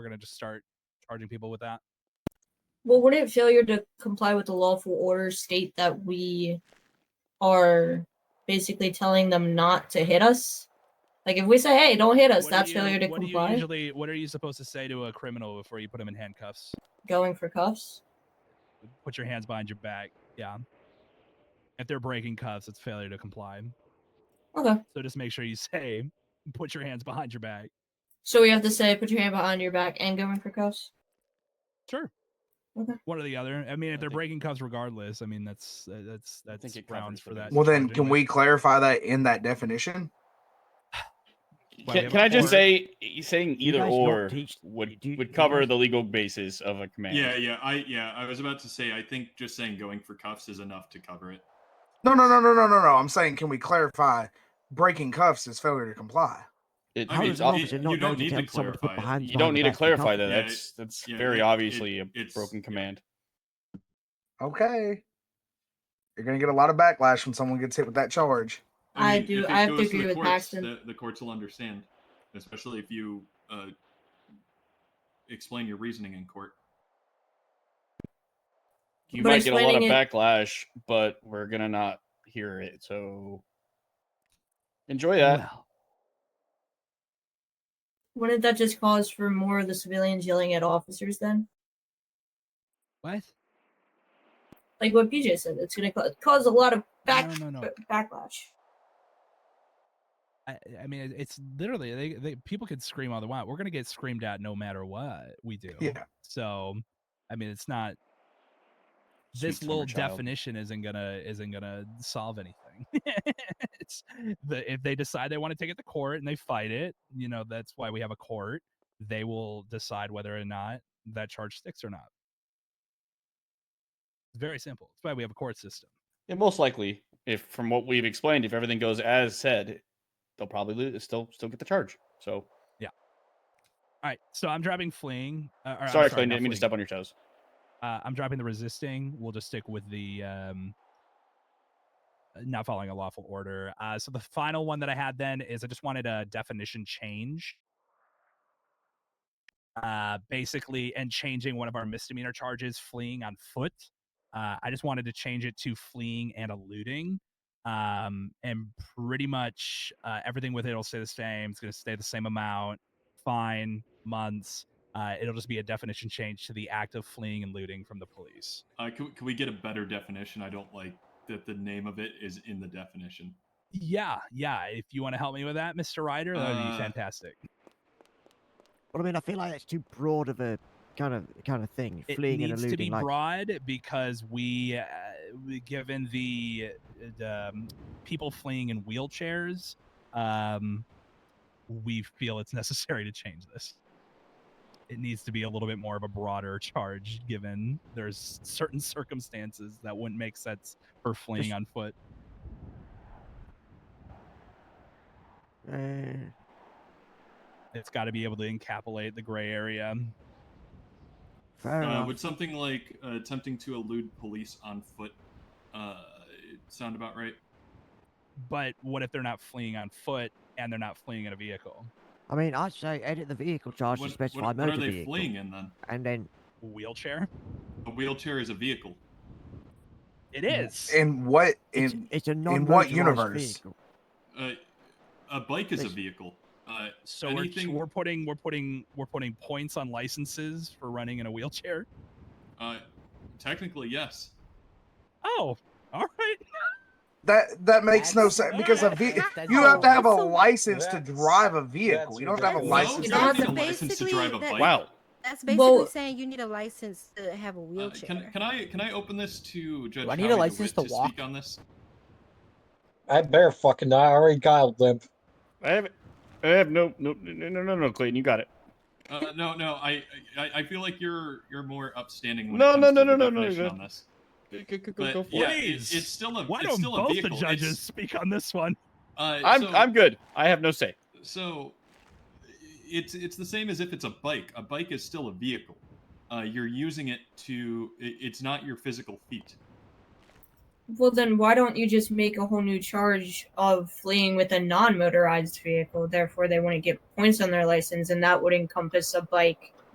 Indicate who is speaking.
Speaker 1: we're gonna just start charging people with that.
Speaker 2: Well, wouldn't failure to comply with the lawful order state that we are basically telling them not to hit us? Like if we say, "Hey, don't hit us,"
Speaker 1: What do
Speaker 2: that's
Speaker 1: you-
Speaker 2: failure to
Speaker 1: what do you
Speaker 2: comply.
Speaker 1: usually, what are you supposed to say to a criminal before you put him in handcuffs?
Speaker 2: Going for cuffs.
Speaker 1: Put your hands behind your back. Yeah. If they're breaking cuffs, it's failure to comply.
Speaker 2: Okay.
Speaker 1: So just make sure you say, put your hands behind your back.
Speaker 2: So we have to say, "Put your hand behind your back," and going for cuffs.
Speaker 1: Sure.
Speaker 2: Okay.
Speaker 1: One or the other. I mean, if
Speaker 3: I
Speaker 1: they're
Speaker 3: think-
Speaker 1: breaking cuffs, regardless. I mean, that's uh, that's
Speaker 3: I
Speaker 1: that's
Speaker 3: think it covers
Speaker 1: grounds for
Speaker 3: the
Speaker 1: that.
Speaker 3: bases.
Speaker 4: Well, then,
Speaker 1: charge
Speaker 4: can
Speaker 1: anyway.
Speaker 4: we clarify that in that definition?
Speaker 1: Why, we
Speaker 5: Can,
Speaker 1: have
Speaker 5: can
Speaker 1: a
Speaker 5: I just
Speaker 1: court?
Speaker 5: say e- saying
Speaker 6: You
Speaker 5: either
Speaker 6: guys don't
Speaker 5: or
Speaker 6: teach-
Speaker 5: would
Speaker 6: do you-
Speaker 5: would
Speaker 6: you
Speaker 5: cover
Speaker 6: guys-
Speaker 5: the legal basis of a command?
Speaker 7: Yeah, yeah, I yeah, I was about to say I think just saying going for cuffs is enough to cover it.
Speaker 4: No, no, no, no, no, no, no. I'm saying, can we clarify breaking cuffs is failure to comply?
Speaker 5: It-
Speaker 7: I
Speaker 6: How
Speaker 7: mean,
Speaker 5: it's
Speaker 6: does an
Speaker 5: ob-
Speaker 7: you-
Speaker 6: officer
Speaker 7: you
Speaker 6: not know
Speaker 7: don't
Speaker 6: to
Speaker 7: need to
Speaker 6: tell someone to put
Speaker 7: clarify it.
Speaker 6: behind
Speaker 5: you don't need to clarify that.
Speaker 7: Yeah, it-
Speaker 5: That's that's
Speaker 7: yeah,
Speaker 5: very
Speaker 7: it- it-
Speaker 5: obviously a
Speaker 7: it's-
Speaker 5: broken
Speaker 7: yeah.
Speaker 5: command.
Speaker 4: Okay. You're gonna get a lot of backlash when someone gets hit with that charge.
Speaker 2: I do-
Speaker 7: if it
Speaker 2: I have to
Speaker 7: goes
Speaker 2: agree
Speaker 7: the
Speaker 2: with
Speaker 7: courts,
Speaker 2: Paxton.
Speaker 7: The, the courts will understand, especially if you uh, explain your reasoning in court.
Speaker 5: You
Speaker 2: But
Speaker 5: might get a lot of
Speaker 2: explaining it-
Speaker 5: backlash, but we're gonna not hear it. So enjoy that.
Speaker 6: Well,
Speaker 2: Wouldn't that just cause for more of the civilians yelling at officers then?
Speaker 1: what?
Speaker 2: Like what PJ said, it's going to ca- cause a lot of back
Speaker 1: No, no, no.
Speaker 2: b- backlash.
Speaker 1: I, I mean, it- it's literally they, they people could scream all they want. We're gonna get screamed at no matter what we do.
Speaker 4: Yeah.
Speaker 1: So, I mean, it's not
Speaker 5: Sweet
Speaker 1: this
Speaker 5: summer
Speaker 1: little
Speaker 5: child.
Speaker 1: definition isn't gonna isn't gonna solve anything. it's the, if they decide they want to take it to court and they fight it, you know, that's why we have a court. They will decide whether or not that charge sticks or not. It's very simple. That's why we have a court system.
Speaker 5: And most likely, if from what we've explained, if everything goes as said, they'll probably lose, still still get the charge. So
Speaker 1: All right, so I'm dropping fleeing. Uh, or I'm
Speaker 5: sorry, Clayton,
Speaker 1: not
Speaker 5: didn't mean to
Speaker 1: fleeing.
Speaker 5: step on your toes.
Speaker 1: Uh, I'm dropping the resisting. We'll just stick with the um, uh, not following a lawful order. Uh, so the final one that I had then is I just wanted a definition change. Uh, basically, and changing one of our misdemeanor charges, fleeing on foot. Uh, I just wanted to change it to fleeing and eluding. Um, and pretty much uh, everything with it will stay the same. It's going to stay the same amount, fine, months. Uh, it'll just be a definition change to the act of fleeing and looting from the police.
Speaker 7: Uh, can, we- can we get a better definition? I don't like that the name of it is in the definition.
Speaker 1: Yeah, yeah. If you want to help me with that, Mr. Ryder, that would be
Speaker 7: Uh,
Speaker 1: fantastic.
Speaker 6: I mean, I feel like that's too broad of a kind of kind of thing.
Speaker 1: It
Speaker 6: Fleeing and
Speaker 1: needs to
Speaker 6: eluding,
Speaker 1: be
Speaker 6: like
Speaker 1: broad because we, uh, we- given the, the um, people fleeing in wheelchairs, um, we feel it's necessary to change this. It needs to be a little bit more of a broader charge, given there's certain circumstances that wouldn't make sense for fleeing
Speaker 6: Just-
Speaker 1: on foot.
Speaker 6: uh,
Speaker 1: It's got to be able to encapsulate the gray area.
Speaker 6: fair
Speaker 7: Uh,
Speaker 6: enough.
Speaker 7: would something like uh, attempting to elude police on foot uh, sound about right?
Speaker 1: But what if they're not fleeing on foot and they're not fleeing in a vehicle?
Speaker 6: I mean, I'd say edit the vehicle charge
Speaker 7: what,
Speaker 6: to specify
Speaker 7: what- what
Speaker 6: motor
Speaker 7: are they
Speaker 6: vehicle,
Speaker 7: fleeing in then?
Speaker 6: and then
Speaker 1: Wheelchair?
Speaker 7: A wheelchair is a vehicle.
Speaker 1: It is.
Speaker 4: And what
Speaker 6: it's,
Speaker 4: in
Speaker 6: it's a non
Speaker 4: what universe?
Speaker 6: Vehicle.
Speaker 7: Uh, a bike is a
Speaker 6: Yes.
Speaker 7: vehicle. Uh,
Speaker 1: so we're,
Speaker 7: anything-
Speaker 1: we're putting we're putting we're putting points on licenses for running in a wheelchair.
Speaker 7: uh, technically, yes.
Speaker 1: Oh, all right.
Speaker 4: That that makes no
Speaker 8: That's-
Speaker 4: sense because a
Speaker 1: that's-
Speaker 4: ve-
Speaker 8: that's
Speaker 4: you have to have a
Speaker 9: awful.
Speaker 4: license to
Speaker 9: That's-
Speaker 4: drive a vehicle. You don't have to have a
Speaker 9: ridiculous.
Speaker 4: license. to
Speaker 7: No, you
Speaker 4: drive
Speaker 7: don't need a
Speaker 4: a
Speaker 7: license to
Speaker 9: Basically,
Speaker 7: drive a
Speaker 9: that-
Speaker 7: bike.
Speaker 5: Wow.
Speaker 9: That's basically
Speaker 2: Well-
Speaker 9: saying you need a license to have a
Speaker 7: Uh,
Speaker 9: wheelchair.
Speaker 7: can, can I can I open this to Judge
Speaker 8: I need a
Speaker 7: Howie
Speaker 8: license
Speaker 7: DeWitt
Speaker 8: to walk?
Speaker 7: speak on this?
Speaker 8: I bear fucking not. I already got a limp.
Speaker 5: I have I have no no no no no, no Clayton, you got it.
Speaker 7: Uh, no, no, I, I I feel like you're you're more upstanding. When
Speaker 5: No,
Speaker 7: it comes
Speaker 5: no,
Speaker 7: to
Speaker 5: no,
Speaker 7: the
Speaker 5: no, no, no,
Speaker 7: definition
Speaker 5: no.
Speaker 7: On this.
Speaker 5: Go, go- go- go-
Speaker 7: But
Speaker 5: go for
Speaker 7: yeah,
Speaker 5: it.
Speaker 7: it,
Speaker 1: Please.
Speaker 7: it's still a
Speaker 1: Why
Speaker 7: it's
Speaker 1: don't
Speaker 7: still a
Speaker 1: both the
Speaker 7: vehicle.
Speaker 1: judges
Speaker 7: It's-
Speaker 1: speak on this one?
Speaker 7: uh,
Speaker 5: I'm
Speaker 7: so,
Speaker 5: I'm good. I have no say.
Speaker 7: so it's it's the same as if it's a bike. A bike is still a vehicle. Uh, you're using it to. It, it's not your physical feet.
Speaker 2: Well, then why don't you just make a whole new charge of fleeing with a non motorized vehicle? Therefore, they wouldn't get points on their license, and that would encompass a bike